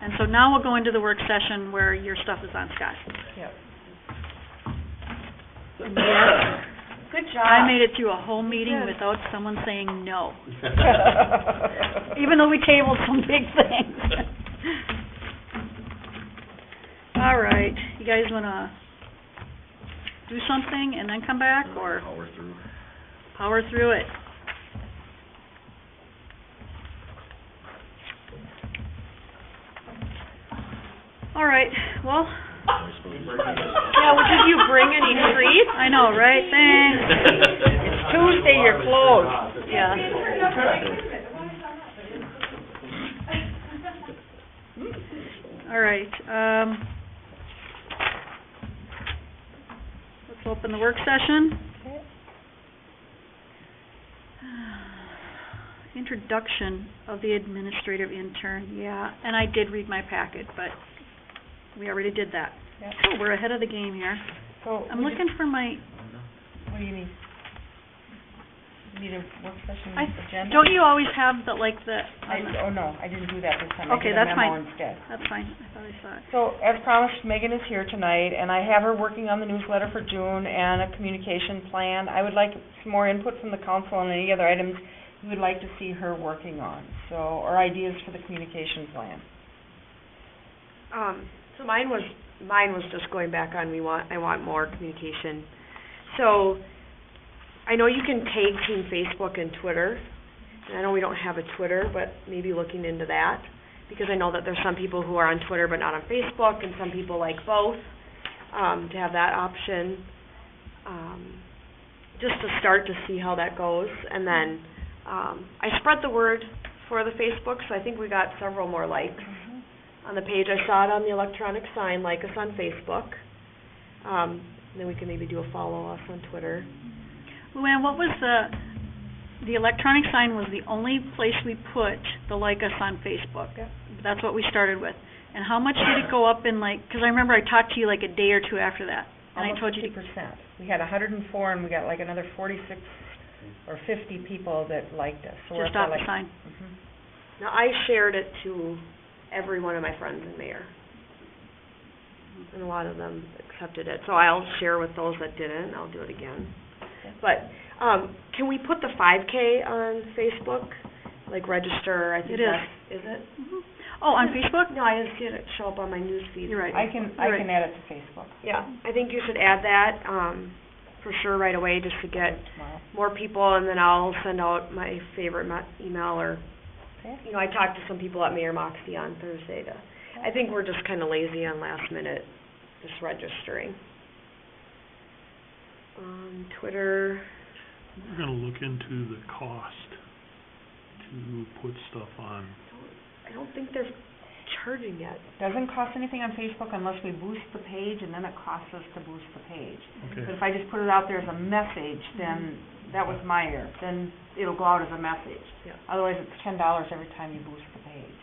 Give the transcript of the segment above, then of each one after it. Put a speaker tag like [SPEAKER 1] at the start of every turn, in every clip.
[SPEAKER 1] And so now we'll go into the work session where your stuff is on Scott.
[SPEAKER 2] Good job.
[SPEAKER 1] I made it through a whole meeting
[SPEAKER 2] did.
[SPEAKER 1] without someone saying no, even
[SPEAKER 3] Even
[SPEAKER 1] though we tabled some big things. All right, you guys wanna do something and then come back, or
[SPEAKER 3] Power through.
[SPEAKER 1] power through it? All right, well,
[SPEAKER 2] Yeah, well, did you bring any treats?
[SPEAKER 1] I know, right, thanks,
[SPEAKER 3] It's
[SPEAKER 2] Tuesday, you're closed.
[SPEAKER 1] yeah. All right, um, let's open the work session. Introduction of the administrative intern, yeah, and I did read my packet, but we already did that.
[SPEAKER 4] Yep.
[SPEAKER 1] So we're ahead of the game here.
[SPEAKER 4] So,
[SPEAKER 1] I'm looking for my,
[SPEAKER 4] what do you mean? You Need a work session
[SPEAKER 1] I-
[SPEAKER 4] agenda?
[SPEAKER 1] don't e- you always have the, like, the,
[SPEAKER 4] I, oh, no, I didn't do that this time. I
[SPEAKER 1] Okay,
[SPEAKER 4] did a
[SPEAKER 1] that's
[SPEAKER 4] memo
[SPEAKER 1] fine.
[SPEAKER 4] instead.
[SPEAKER 1] that's fine, I thought I saw it.
[SPEAKER 4] So, as promised, Megan is here tonight, and I have her working on the newsletter for June and a communication plan. I would like some more input from the council on any other items you would like to see her working on, so, or ideas for the communication plan.
[SPEAKER 2] Um, so mine was, mine was just going back on, we want, I want more communication. So, I know you can tag team Facebook and Twitter, and I know we don't have a Twitter, but maybe looking into that, because I know that there's some people who are on Twitter but not on Facebook, and some people like both, um, to have that option, um, just to start to see how that goes, and then, um, I spread the word for the Facebook, so I think we got several more likes on the page. I saw it on the electronic sign, like us on Facebook. Um, and then we can maybe do a follow us on Twitter.
[SPEAKER 1] Luann, what was the, the electronic sign was the only place we put the like us on Facebook.
[SPEAKER 2] Yep.
[SPEAKER 1] That's what we started with. And how much did it go up in like, because I remember I talked to you like a day or two after that. And I told you, to-
[SPEAKER 4] Almost fifty percent. We had a hundred and four, and we got like another forty-six or fifty people that liked us, so we're
[SPEAKER 1] to
[SPEAKER 4] up to
[SPEAKER 1] stop
[SPEAKER 4] like.
[SPEAKER 1] the sign.
[SPEAKER 4] Mhm.
[SPEAKER 2] Now, I shared it to every one of my friends in Mayor. And a lot of them accepted it, so I'll share with those that didn't, I'll do it again. But, um, can we put the five K on Facebook? Like register, I think
[SPEAKER 1] It is.
[SPEAKER 2] that's, is it?
[SPEAKER 1] Mhm. Oh, on Facebook?
[SPEAKER 2] No, I didn't see it show up on my news feed.
[SPEAKER 1] You're right.
[SPEAKER 4] I can, I can add it to Facebook.
[SPEAKER 2] Yeah, I think you should add that, um, for sure right away, just to get
[SPEAKER 4] tomorrow.
[SPEAKER 2] more people, and then I'll send out my favorite mo- email, or,
[SPEAKER 4] Okay.
[SPEAKER 2] you know, I talked to some people at Mayor Moxie on Thursday to, I think we're just kinda lazy on last minute, just registering. Um, Twitter,
[SPEAKER 5] We're gonna look into the cost to put stuff on.
[SPEAKER 2] I don't think they're charging yet.
[SPEAKER 4] Doesn't cost anything on Facebook unless we boost the page, and then it costs us to boost the page. But
[SPEAKER 5] Okay,
[SPEAKER 4] if I just put it out there as a message, then, that was my error, then it'll go out as a message.
[SPEAKER 2] Yeah.
[SPEAKER 4] Otherwise, it's ten dollars every time you boost the page.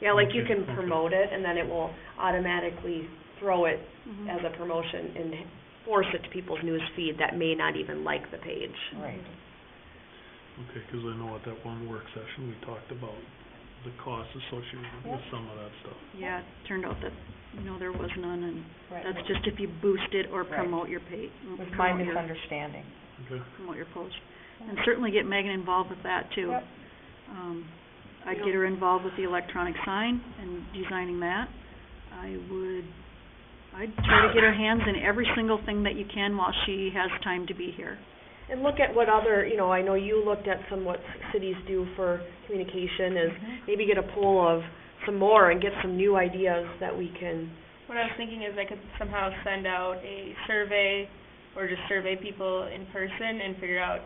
[SPEAKER 2] Yeah, like you
[SPEAKER 5] Okay,
[SPEAKER 2] can
[SPEAKER 5] okay.
[SPEAKER 2] promote it, and then it will automatically throw it
[SPEAKER 4] Mm-hmm.
[SPEAKER 1] Mhm.
[SPEAKER 2] as a promotion and force it to people's news feed that may not even like the page.
[SPEAKER 4] Right.
[SPEAKER 2] Mm-hmm.
[SPEAKER 5] okay, 'cause I know at that one work session, we talked about the costs associated with
[SPEAKER 4] Yep.
[SPEAKER 5] some of that stuff.
[SPEAKER 1] Yeah, it turned out that, no, there was none, and
[SPEAKER 4] Right.
[SPEAKER 1] that's just if you boost it or
[SPEAKER 4] Right.
[SPEAKER 1] promote your page,
[SPEAKER 4] Was my
[SPEAKER 1] promote your,
[SPEAKER 4] misunderstanding.
[SPEAKER 5] Okay,
[SPEAKER 1] promote your post. And certainly get Megan involved with that too.
[SPEAKER 4] Yep.
[SPEAKER 1] Um, I'd get her involved with the electronic sign and designing that. I would, I'd try to get her hands in every single thing that you can while she has time to be here.
[SPEAKER 2] And look at what other, you know, I know you looked at some what cities do for communication is
[SPEAKER 4] Mhm.
[SPEAKER 2] maybe get a poll of some more and get some new ideas that we can,
[SPEAKER 6] What I was thinking is I could somehow send out a survey or just survey people in person and figure out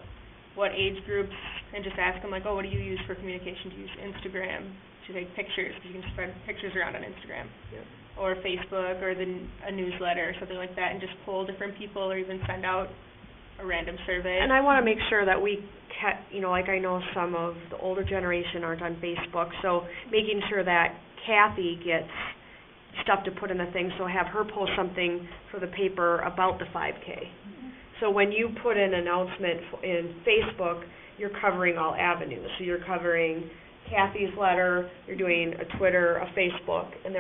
[SPEAKER 6] what age groups and just ask them like, oh, what do you use for communication? Do you use Instagram to take pictures? Because you can spread pictures around on Instagram.
[SPEAKER 2] Yep.
[SPEAKER 6] Or Facebook or the, n- a newsletter or something like that and just poll different people or even send out a random survey.
[SPEAKER 2] and I wanna make sure that we ca- you know, like I know some of the older generation aren't on Facebook, so making sure that Kathy gets stuff to put in the thing, so have her post something for the paper about the five K. So when you put an announcement f- in Facebook, you're covering all avenues. So you're covering Kathy's letter, you're doing a Twitter, a Facebook, and then